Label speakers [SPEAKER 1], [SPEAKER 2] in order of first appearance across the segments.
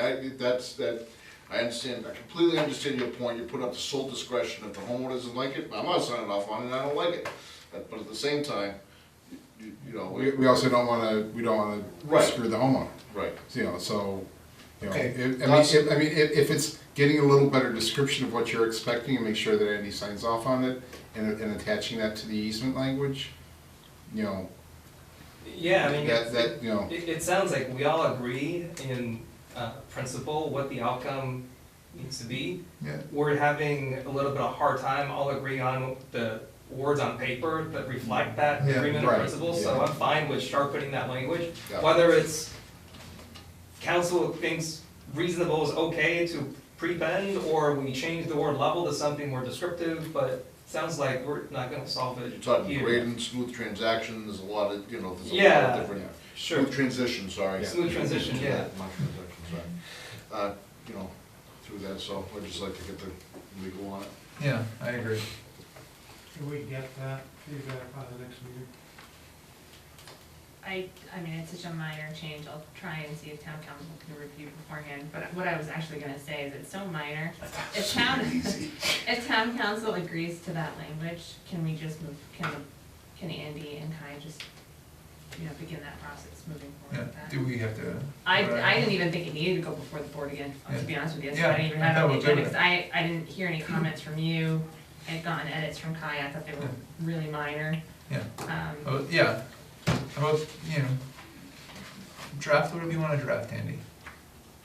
[SPEAKER 1] I, that's, that, I understand, I completely understand your point, you put up the sole discretion, if the homeowner doesn't like it, I'm not signing off on it, I don't like it. But- But at the same time, you, you know, we,
[SPEAKER 2] We, we also don't wanna, we don't wanna
[SPEAKER 1] Right.
[SPEAKER 2] screw the homeowner,
[SPEAKER 1] right,
[SPEAKER 2] you know, so, you know,
[SPEAKER 3] Okay.
[SPEAKER 2] if, I mean, if, I mean, if, if it's getting a little better description of what you're expecting and make sure that Andy signs off on it and, and attaching that to the easement language, you know,
[SPEAKER 3] Yeah, I mean,
[SPEAKER 2] that,
[SPEAKER 3] it,
[SPEAKER 2] that, you know,
[SPEAKER 3] it sounds like we all agree in uh, principle what the outcome needs to be.
[SPEAKER 2] yeah,
[SPEAKER 3] We're having a little bit of hard time all agreeing on the words on paper that reflect that
[SPEAKER 2] Yeah,
[SPEAKER 3] agreement in
[SPEAKER 2] right,
[SPEAKER 3] principle, so
[SPEAKER 2] yeah.
[SPEAKER 3] I'm fine with sharpening that language.
[SPEAKER 2] Yeah.
[SPEAKER 3] Whether it's council thinks reasonable is okay to pre-bend, or we change the word level to something more descriptive, but sounds like we're not gonna solve it
[SPEAKER 1] you're talking
[SPEAKER 3] here.
[SPEAKER 1] great and smooth transactions, a lot of, you know, there's a lot
[SPEAKER 3] Yeah.
[SPEAKER 1] of different.
[SPEAKER 3] Sure.
[SPEAKER 1] Smooth transition, sorry.
[SPEAKER 2] Yeah.
[SPEAKER 3] Smooth transition, yeah.
[SPEAKER 1] My transition, sorry. Uh, you know, through that, so I'd just like to get the legal on it.
[SPEAKER 4] Yeah, I agree.
[SPEAKER 5] Can we get that feedback by the next meeting?
[SPEAKER 6] I, I mean, it's such a minor change, I'll try and see if town council can review beforehand, but what I was actually gonna say is it's so minor. If town, if town council agrees to that language, can we just move, can, can Andy and Kai just, you know, begin that process moving
[SPEAKER 4] Yeah,
[SPEAKER 6] forward with that?
[SPEAKER 4] do we have to?
[SPEAKER 6] I,
[SPEAKER 4] Right.
[SPEAKER 6] I didn't even think it needed to go before the board again, to be honest with you, so
[SPEAKER 4] Yeah.
[SPEAKER 6] I didn't even
[SPEAKER 4] Yeah,
[SPEAKER 6] have
[SPEAKER 4] I
[SPEAKER 6] it on
[SPEAKER 4] would
[SPEAKER 6] the
[SPEAKER 4] do
[SPEAKER 6] agenda,
[SPEAKER 4] it.
[SPEAKER 6] 'cause I, I didn't hear any comments from you. I had gotten edits from Kai, I thought they were really minor,
[SPEAKER 4] Yeah,
[SPEAKER 6] um.
[SPEAKER 4] oh, yeah, how about, you know, draft whatever you wanna draft, Andy.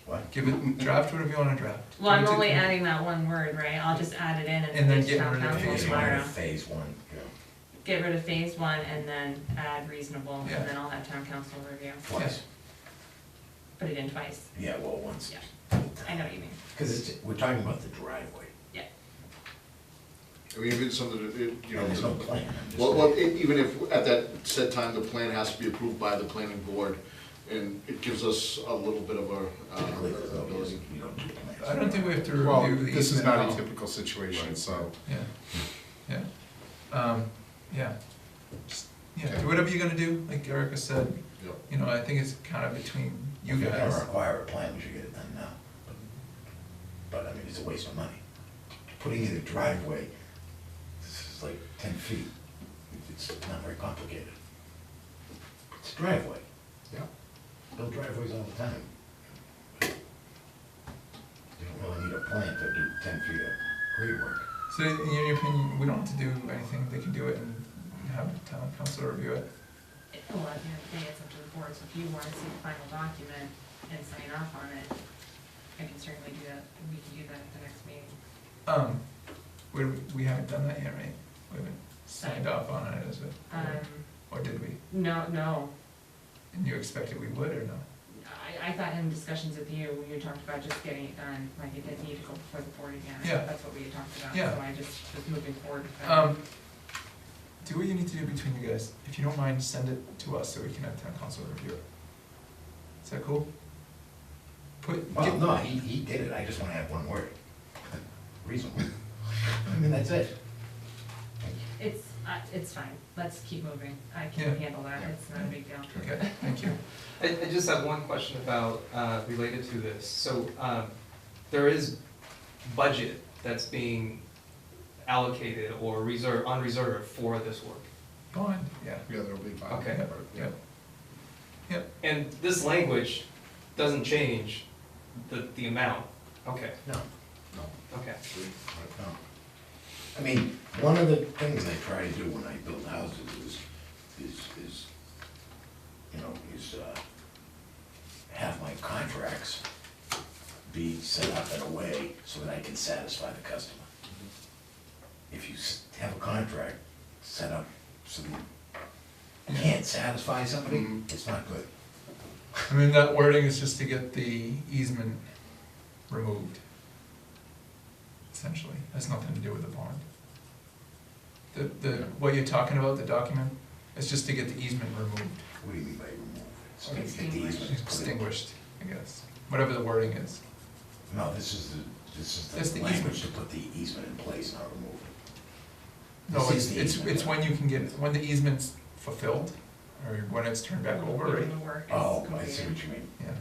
[SPEAKER 7] What?
[SPEAKER 4] Give it, draft whatever you wanna draft.
[SPEAKER 6] Well, I'm
[SPEAKER 4] Give it to-
[SPEAKER 6] only adding that one word, right? I'll just add it in
[SPEAKER 4] And
[SPEAKER 6] and
[SPEAKER 4] then
[SPEAKER 6] then
[SPEAKER 4] get
[SPEAKER 6] town
[SPEAKER 4] rid of
[SPEAKER 6] council
[SPEAKER 7] Phase
[SPEAKER 6] tomorrow.
[SPEAKER 7] one, phase one, yeah,
[SPEAKER 6] Get rid of phase one and then add reasonable,
[SPEAKER 4] Yeah.
[SPEAKER 6] and then I'll have town council review.
[SPEAKER 7] twice,
[SPEAKER 6] Put it in twice.
[SPEAKER 7] yeah, well, once.
[SPEAKER 6] Yeah. I know what you mean.
[SPEAKER 7] Because it's, we're talking about the driveway,
[SPEAKER 6] Yeah.
[SPEAKER 1] I mean, if it's something that, it- you know.
[SPEAKER 7] there's no plan. I'm just-
[SPEAKER 1] Well, well, e- even if, at that said time, the plan has to be approved by the planning board, and it gives us a little bit of a,
[SPEAKER 7] Typically, there's
[SPEAKER 1] uh,
[SPEAKER 7] no
[SPEAKER 1] ability.
[SPEAKER 7] reason you don't do plans.
[SPEAKER 4] I don't think we have to
[SPEAKER 2] well,
[SPEAKER 4] review the
[SPEAKER 2] this is
[SPEAKER 4] easement at
[SPEAKER 2] not a
[SPEAKER 4] all.
[SPEAKER 2] typical situation, so.
[SPEAKER 4] Yeah, yeah, um, yeah, just, yeah, do whatever you're gonna do, like Erica said,
[SPEAKER 1] Yep.
[SPEAKER 4] you know, I think it's kinda between you
[SPEAKER 7] If you're gonna
[SPEAKER 4] guys.
[SPEAKER 7] require a plan, we should get it done now. But, I mean, it's a waste of money. Putting in a driveway, this is like ten feet, it's not very complicated. It's a driveway,
[SPEAKER 2] Yeah.
[SPEAKER 7] build driveways all the time. You don't really need a plan to do ten feet of grade work.
[SPEAKER 4] So in your opinion, we don't have to do anything, they can do it and have town council review it?
[SPEAKER 6] It- Well, at the end of the day, it's up to the board, so if you want to see the final document and sign off on it, I can certainly do that. We can do that at the next meeting.
[SPEAKER 4] Um, we, we haven't done that yet, right? We haven't signed off on it as a,
[SPEAKER 6] Um,
[SPEAKER 4] or did we?
[SPEAKER 6] no, no,
[SPEAKER 4] And you expected we would or no?
[SPEAKER 6] I, I thought in discussions with you, you talked about just getting it done, like it didn't need to go before the board again.
[SPEAKER 4] Yeah.
[SPEAKER 6] That's what we had talked about,
[SPEAKER 4] Yeah.
[SPEAKER 6] so I just was moving forward. with that.
[SPEAKER 4] Um, do what you need to do between you guys. If you don't mind, send it to us so we can have town council review it. Is that cool? Put,
[SPEAKER 7] Well,
[SPEAKER 4] get,
[SPEAKER 7] no, he, he did it, I just wanna add one word. Reasonable. I mean, that's it.
[SPEAKER 6] It's, uh, it's fine, let's keep moving, I can
[SPEAKER 4] Yeah.
[SPEAKER 6] handle that, it's not a big deal.
[SPEAKER 4] okay, thank you.
[SPEAKER 3] I, I just have one question about, uh, related to this. So, um, there is budget that's being allocated or reserved, unreserved for this work.
[SPEAKER 4] Bond, yeah.
[SPEAKER 2] Yeah, there'll be five.
[SPEAKER 3] Okay.
[SPEAKER 2] Yeah.
[SPEAKER 4] Yep. Yep,
[SPEAKER 3] And this language doesn't change the, the amount. Okay,
[SPEAKER 7] No.
[SPEAKER 1] No.
[SPEAKER 3] okay.
[SPEAKER 7] No. I mean, one of the things I try to do when I build houses is, is, is, you know, is, uh, have my contracts be set up in a way so that I can satisfy the customer. If you s- have a contract set up so that you can't satisfy somebody, it's not good.
[SPEAKER 4] I mean, that wording is just to get the easement removed. Essentially, has nothing to do with the bond. The, the, what you're talking about, the document, is just to get the easement removed,
[SPEAKER 7] What do you mean by remove? It's
[SPEAKER 6] Okay.
[SPEAKER 7] get the easement, put it-
[SPEAKER 4] extinguished, I guess, whatever the wording is.
[SPEAKER 7] No, this is the, this
[SPEAKER 4] That's
[SPEAKER 7] is
[SPEAKER 4] the
[SPEAKER 7] the
[SPEAKER 4] easement.
[SPEAKER 7] language to put the easement in place, not remove it.
[SPEAKER 4] No,
[SPEAKER 7] This
[SPEAKER 4] it's,
[SPEAKER 7] is the
[SPEAKER 4] it's,
[SPEAKER 7] easement.
[SPEAKER 4] it's when you can get, when the easement's fulfilled, or when it's turned back over, right?
[SPEAKER 6] Even the work is
[SPEAKER 7] Oh, I see
[SPEAKER 6] completed.
[SPEAKER 7] what you mean.
[SPEAKER 4] Yeah,